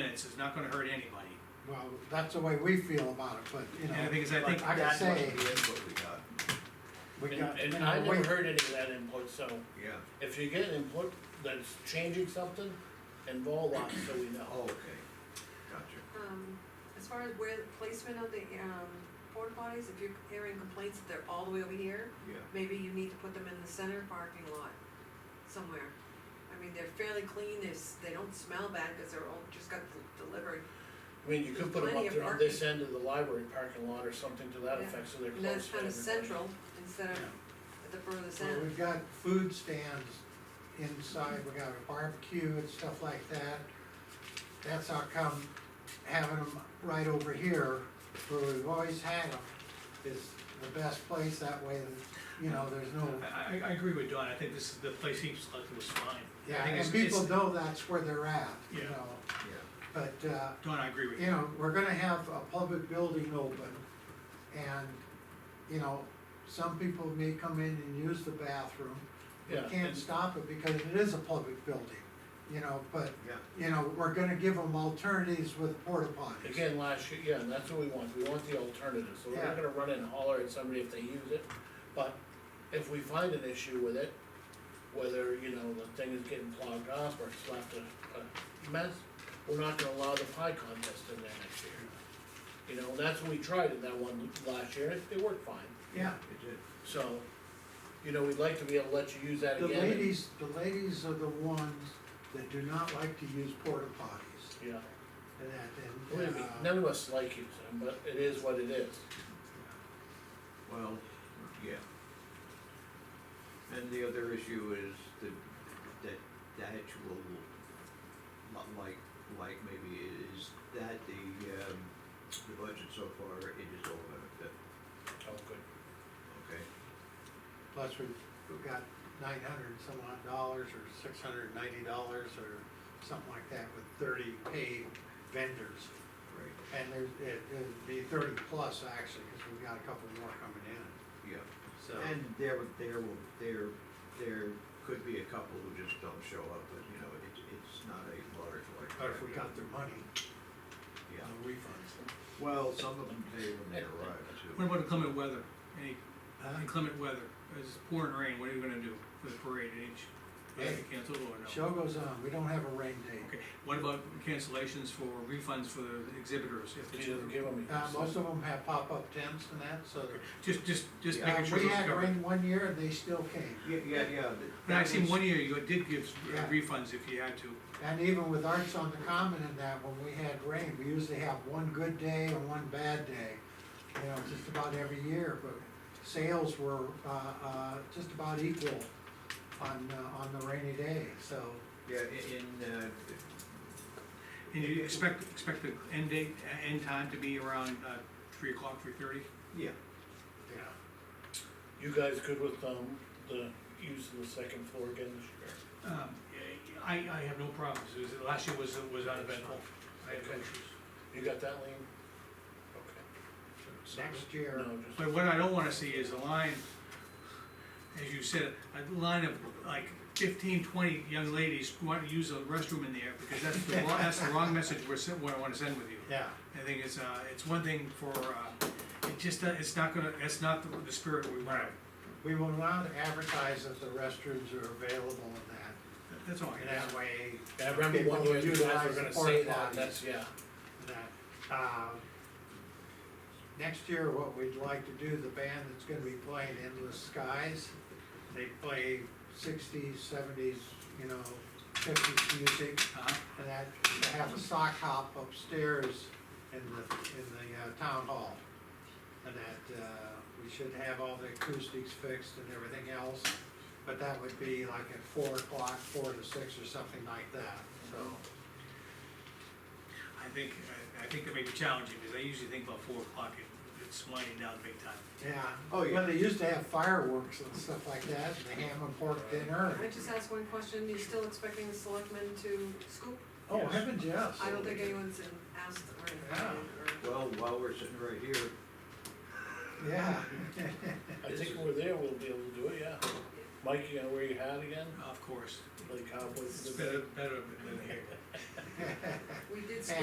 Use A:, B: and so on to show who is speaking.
A: minutes is not gonna hurt anybody.
B: Well, that's the way we feel about it, but, you
A: And the
B: know,
A: thing is, I think,
B: I can
C: That
B: say,
C: must be input we got,
B: we got, you
D: And, and
B: know,
D: I
B: we-
D: never heard any of that input, so
C: yeah,
D: if you get input that's changing something, involve us so we know.
C: oh, okay, gotcha.
E: Um, as far as where the placement of the, um, porta potties, if you're hearing complaints that they're all the way over here,
C: Yeah,
E: maybe you need to put them in the center parking lot somewhere. I mean, they're fairly clean, they, s- they don't smell bad, cause they're all, just got d- delivered,
D: I mean, you could put them
E: Plenty
D: up
E: of
D: there on this end of the library parking lot or something to that
E: Yeah.
D: effect, so they're
E: and
D: close
E: that's
D: to
E: kind of
D: everybody.
E: central instead of at the furthest
B: well,
E: end.
B: we've got food stands inside, we got a barbecue and stuff like that. That's how come having them right over here, where we've always had them, is the best place, that way, you know, there's no,
A: I, I, I agree with Don, I think this is, the place he selected was fine. I
B: yeah,
A: think it's-
B: and people
A: it's-
B: know that's where they're at, you
A: Yeah.
B: know,
C: yeah,
B: but, uh,
A: Don, I agree with
B: you
A: you.
B: know, we're gonna have a public building open, and, you know, some people may come in and use the bathroom. We
D: Yeah,
B: can't
D: and-
B: stop it because it is a public building, you know, but,
C: yeah,
B: you know, we're gonna give them alternatives with porta potties.
D: Again, last year, yeah, and that's what we want, we want the alternative, so we're
B: Yeah.
D: not gonna run and holler at somebody if they use it. But if we find an issue with it, whether, you know, the thing is getting clogged up or it's left a, a mess, we're not gonna allow the pie contest in there next year. You know, that's what we tried in that one last year, and it, it worked fine,
B: Yeah,
C: it did.
D: so, you know, we'd like to be able to let you use that
B: the
D: again. and-
B: ladies, the ladies are the ones that do not like to use porta potties,
D: Yeah,
B: and that,
D: believe
B: and,
D: me,
B: uh,
D: none of us like using them, but it is what it is.
C: Well, yeah. And the other issue is that, that, that actual, li- like, like maybe is that the, um, the budget so far, it is all benefit,
D: Oh, good.
C: okay?
B: plus we've, we've got nine hundred some odd dollars, or six hundred ninety dollars, or something like that, with thirty paid vendors.
C: Right,
B: And there's, it, it'd be thirty plus actually, cause we've got a couple more coming in,
C: yeah.
B: so.
C: And there, were- there, will- there, there could be a couple who just don't show up, but, you know, it, it's not a large like.
B: But if we got their money,
C: Yeah,
B: the refunds.
C: well, some of them pay when they arrive too.
A: What about inclement weather? Any
B: Huh?
A: inclement weather, it's pouring rain, what are you gonna do for the parade, any, ch- you have to
B: Hey.
A: cancel or no?
B: Show goes on, we don't have a rain date.
A: Okay, what about cancellations for refunds for the exhibitors if
D: She doesn't
A: they,
D: give them.
B: Uh, most of them have pop-up tents and that, so.
A: just, just, just
C: Yeah.
A: making
B: Uh,
A: sure
B: we
A: those
B: had
A: covered.
B: rain one year and they still came,
C: Yeah, yeah, yeah. that-
A: And I
C: that
A: seen
C: was-
A: one year you did give uh,
B: Yeah.
A: refunds if you had to,
B: and even with Arts on the Common and that, when we had rain, we usually have one good day and one bad day. You know, just about every year, but sales were, uh, uh, just about equal on, uh, on the rainy day, so.
C: Yeah, i- in, uh,
A: and you expect, expect the end date, uh, end time to be around, uh, three o'clock, three thirty?
C: yeah,
B: Yeah.
D: You guys good with, um, the use of the second floor again this year?
A: Um, I, I have no problems, it was, last year was, was uneventful, I had no issues.
D: You got that, Lean? Okay.
B: Next year,
D: No, just,
A: But what I don't wanna see is a line, as you said, a line of like 15, 20 young ladies who want to use a restroom in there, because that's the wrong, that's the wrong message we're, sen- what I wanna send with you.
B: yeah.
A: I think it's, uh, it's one thing for, uh, it just, uh, it's not gonna, it's not the, the spirit we want.
B: We will not advertise that the restrooms are available in
A: That's all
B: that,
A: I
B: and
A: can ask.
B: that way,
D: I remember one
B: People
D: year you guys were
B: utilize
D: gonna
B: the
D: say
B: porta
D: that,
B: potties.
D: that's, yeah.
B: that, um, next year, what we'd like to do, the band that's gonna be playing Endless Skies, they play sixties, seventies, you know, fifties music,
A: Uh-huh.
B: and that, they have a sock hop upstairs in the, in the, uh, town hall. And that, uh, we should have all the acoustics fixed and everything else, but that would be like at four o'clock, four to six or something like that, so.
A: I think, I, I think it may be challenging, because I usually think about four o'clock, it, it's winding down big time.
B: Yeah.
C: Oh, yeah.
B: When they used to have fireworks and stuff like that, and the ham and pork dinner.
E: Can I just ask one question, you still expecting the selectmen to scoop?
B: Oh, heaven, yes.
E: I don't think anyone's asked or
B: Yeah.
E: invited or.
C: well, while we're sitting right here,
B: Yeah.
D: I think we're there, we'll be able to do it, yeah. Mike, you gonna wear your hat again,
A: Of course,
D: like
A: it's
D: cowboys? do?
A: better, better than here.
E: We did
B: Yeah.